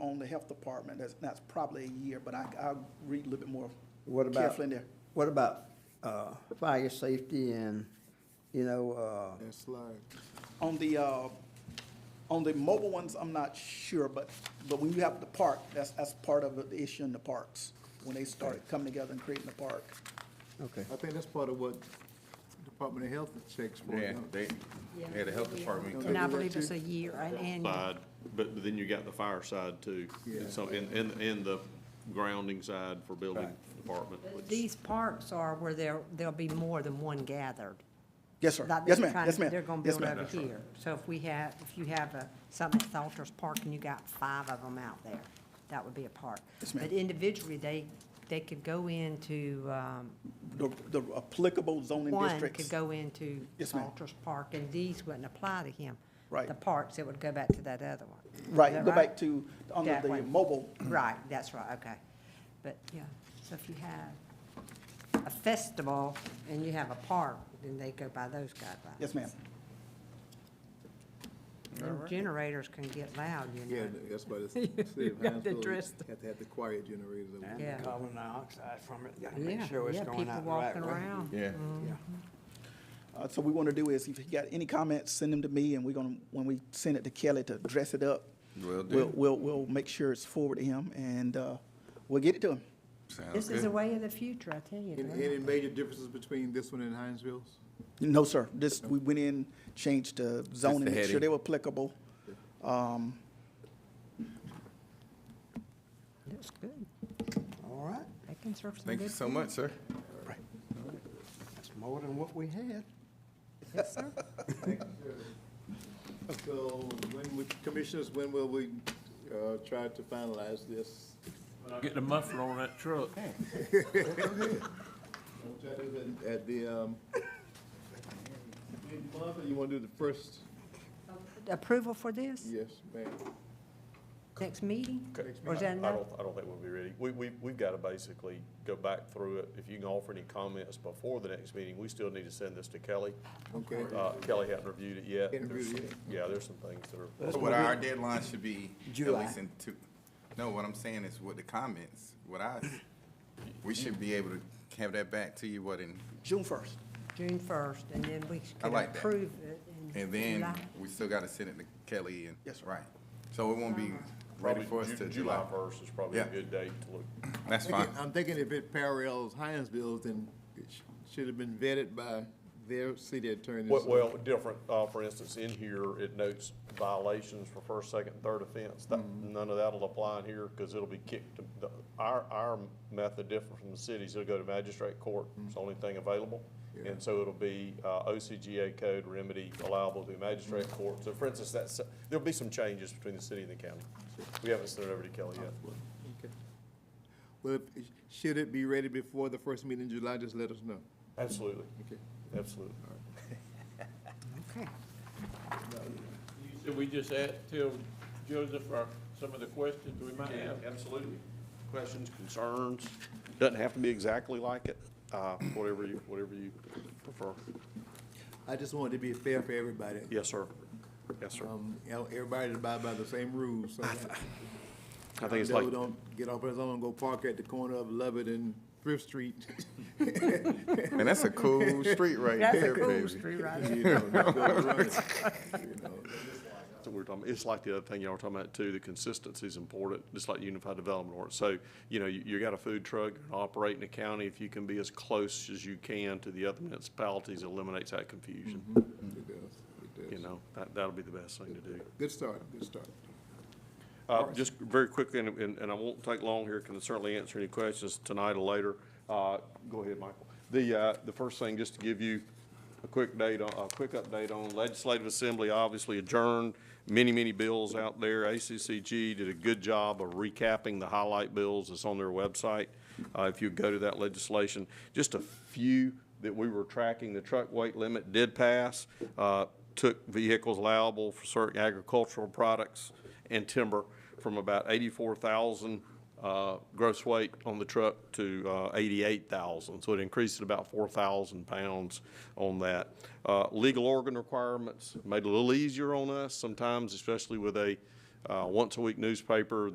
health department, that's, that's probably a year, but I, I'll read a little bit more What about- carefully in there. What about, uh, fire safety and, you know, uh, And slide. On the, uh, on the mobile ones, I'm not sure, but, but when you have the park, that's, that's part of the issue in the parks, when they started coming together and creating the park. okay. I think that's part of what Department of Health checks for. Yeah, don't they, yeah, the health department. And I believe it's a year, an annual. side, but but then you got the fire side too. Yeah. So, and, and, and the grounding side for building department, which- These parks are where there, there'll be more than one gathered. Yes, sir. Like Yes, they're ma'am. trying- Yes, ma'am. They're gonna Yes, build ma'am. over here. So if we have, if you have a, something at Salters Park and you got five of them out there, that would be a park. Yes, ma'am. But individually, they, they could go into, um, The, the applicable zoning one districts. could go into Yes, ma'am. Salters Park and these wouldn't apply to him. Right. The parks, it would go back to that other one. Is Right, that go back to, under That the one. mobile, Right, that's right, okay. But, yeah, so if you have a festival and you have a park, then they go by those guidelines. yes, ma'am. Them generators can get loud, they? you Yeah, know. that's why it's. You got to dress them. Have to have the quiet generators. over there. Yeah. carbon dioxide from it, gotta Yeah, make sure it's yeah, going people out the right way. walking around. Yeah, Yeah. Uh, so we want to do is, if you got any comments, send them to me, and we're gonna, when we send it to Kelly to dress it up. Will do. We'll, we'll, we'll make sure it's forward to him, and, uh, we'll get it to him. sounds This is the good. way of the future, I tell you. Any, Glenn. any major differences between this one and Hinesville's? No, sir, this, we went in, changed the zoning, make sure heading. they were applicable. That's good. All right, They can serve some good. Thank you so much, sir. that's more than what we had. Yes, sir. So when, we- commissioners, when will we, uh, try to finalize this? Get the muffler on that truck. We'll try to do it At the, um, mid-month, or you wanna do the first? Approval for this, Yes, ma'am. next meeting? Okay. Or is that I enough? don't, I don't think we'll be ready. We, we, we've got to basically go back through it. If you can offer any comments before the next meeting, we still need to send this to Kelly. Okay. Uh, Kelly hasn't reviewed it yet. Hadn't There's reviewed it some- Yeah, there's some things that are. So what our deadline should be, at July. least in two, no, what I'm saying is with the comments, what I, we should be able to have that back to you, what, in, June first. June first, and then we can like that. approve it. in and then July. we still gotta send it to Kelly and. Yes, sir. Right. So it won't Uh-huh. be ready probably for us Ju- till July. first is probably a Yeah. good date to look. That's fine. Thinking- I'm thinking if it parallels Hinesville's, then it sh- should have been vetted by their city attorneys. Well, well, different, uh, for instance, in here, it notes violations for first, second, third offense. That, Mm-hmm. none of that'll apply in here, because it'll be kicked, to- the, our, our method different from the cities, it'll go to magistrate court, it's the only thing available. Mm-hmm. Yeah. And so it'll be, uh, OCGA code remedy allowable to magistrate Mm-hmm. court. So for instance, that's, there'll be some changes between the city and the county. We haven't sent it over to Kelly yet. Okay. Well, if- should it be ready before the first meeting in July, just let us know. Absolutely, Okay. absolutely. Okay. Should we just add, tell Joseph or some of the questions we might Yeah, have? absolutely. Questions, concerns? Doesn't have to be exactly like it, uh, whatever you, whatever you prefer. I just wanted to be fair for everybody. Yes, sir. Yes, sir. Um, you know, everybody abide by the same rules, so. I think it's Joe like, Don't get off his own, go park at the corner of Lovett and Thrift Street. And that's a cool street right That's a there, cool baby. street, right? You know, don't go running, you know. that's what we we're talking, it's like the other thing y'all were talking about too, the consistency is important, just like unified development ordinance. So, you know, you, you got a food truck operating a county, if you can be as close as you can to the other municipalities, eliminates that confusion. It does, it You does. know, that, that'll be the best thing to do. Good start, good start. Uh, Just very quickly, and, and and I won't take long here, can certainly answer any questions tonight or later. Uh, Go ahead, Michael. The, uh, the first thing, just to give you a quick date, on- a quick update on Legislative Assembly, obviously adjourned, many, many bills out there. ACCG did a good job of recapping the highlight bills that's on their website, uh, if you go to that legislation. Just a few that we were tracking, the truck weight limit did pass, uh, took vehicles allowable for certain agricultural products and timber from about eighty-four thousand, uh, gross weight on the truck to, uh, eighty-eight thousand. So it increased it about four thousand pounds on that. Uh, legal organ requirements made it a little easier on us sometimes, especially with a, uh, once-a-week newspaper